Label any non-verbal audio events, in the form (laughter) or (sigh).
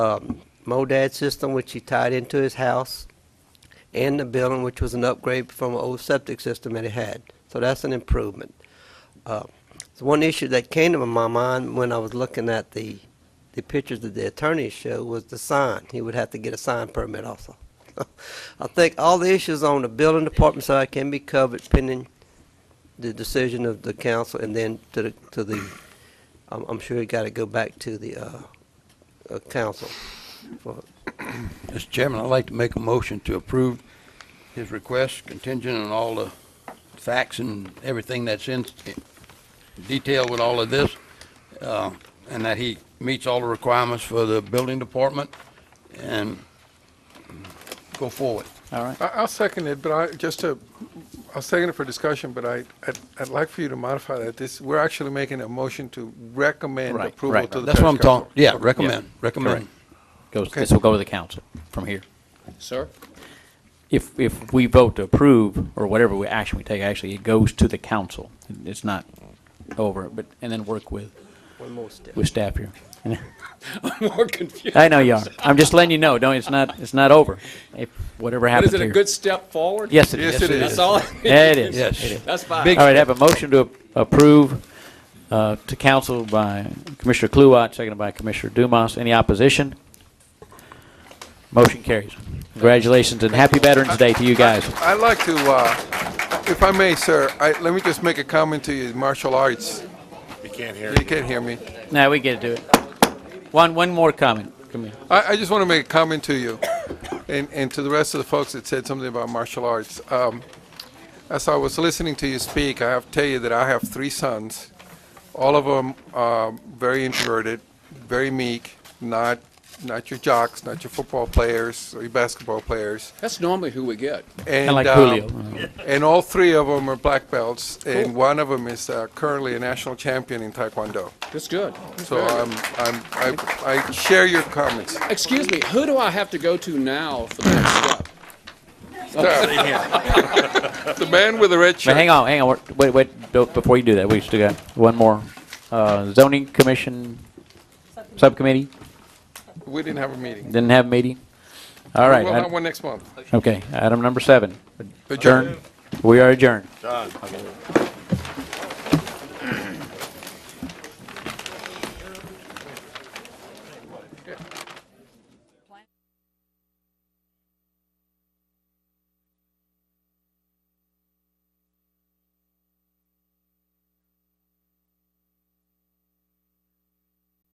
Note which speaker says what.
Speaker 1: um, MODAD system, which he tied into his house, and the building, which was an upgrade from an old septic system that he had. So that's an improvement. Uh, So one issue that came to my mind when I was looking at the, the pictures that the attorney showed was the sign. He would have to get a sign permit also. (laughs) I think all the issues on the building department side can be covered pending the decision of the council, and then to the, to the, I'm, I'm sure it gotta go back to the, uh, uh, council for
Speaker 2: Mr. Chairman, I'd like to make a motion to approve his request contingent on all the facts and everything that's in detail with all of this, uh, and that he meets all the requirements for the building department and go forward.
Speaker 3: All right.
Speaker 4: I- I'll second it, but I, just to, I'll second it for discussion, but I, I'd- I'd like for you to modify that. This, we're actually making a motion to recommend
Speaker 3: Right,
Speaker 4: approval
Speaker 3: right.
Speaker 4: to the
Speaker 2: That's what I'm
Speaker 4: Parish Council.
Speaker 2: talking, yeah, recommend, recommend.
Speaker 3: Goes,
Speaker 4: Okay.
Speaker 3: this will go to the council from here.
Speaker 5: Sir? (laughs)
Speaker 3: If, if we vote to approve, or whatever we, action we take, actually, it goes to the council. It's not over, but, and then work with,
Speaker 1: one more step.
Speaker 3: with staff here. (laughs)
Speaker 5: More confused.
Speaker 3: I know you are. I'm just letting you know, don't, it's not, it's not over. If, whatever
Speaker 5: But
Speaker 3: happens
Speaker 5: is it
Speaker 3: here.
Speaker 5: a good step forward?
Speaker 3: Yes, it is.
Speaker 4: Yes, it
Speaker 5: That's
Speaker 4: is.
Speaker 5: all?
Speaker 3: Yeah, it is.
Speaker 2: Yes.
Speaker 3: It is.
Speaker 5: That's fine.
Speaker 2: Big-
Speaker 3: All right, I have a motion to approve uh, to council by Commissioner Kluwat, seconded by Commissioner Dumas. Any opposition? Motion carries. Congratulations and happy Veterans Day to you guys.
Speaker 4: I'd like to, uh, if I may, sir, I, let me just make a comment to you, martial arts.
Speaker 6: You can't hear
Speaker 4: You can't hear me.
Speaker 3: Now, we get to do it. One, one more comment. Come here.
Speaker 4: I, I just want to make a comment to you (coughs) and, and to the rest of the folks that said something about martial arts. Um, as I was listening to you speak, I have to tell you that I have three sons. All of them are very introverted, very meek, not, not your jocks, not your football players or your basketball players.
Speaker 5: That's normally who we get.
Speaker 4: And,
Speaker 3: Kinda like
Speaker 4: um,
Speaker 3: Julio.
Speaker 4: (laughs) and all three of them are black belts, and one of them is uh, currently a national champion in Taekwondo.
Speaker 5: That's good. That's
Speaker 4: So
Speaker 5: very good.
Speaker 4: I'm, I'm, I, I share your comments.
Speaker 5: Excuse me, who do I have to go to now for the next step?
Speaker 4: (laughs) The man with the red
Speaker 3: But
Speaker 4: shirt.
Speaker 3: hang on, hang on. We're- Wait, wait, don't- before you do that, we still got one more. Uh, Zoning Commission Subcommittee,
Speaker 4: We didn't have a meeting.
Speaker 3: didn't have a meeting? All right.
Speaker 4: We'll
Speaker 3: I-
Speaker 4: have one next month.
Speaker 3: Okay, item number seven.
Speaker 4: Adjourn.
Speaker 3: We are adjourned.
Speaker 6: Done.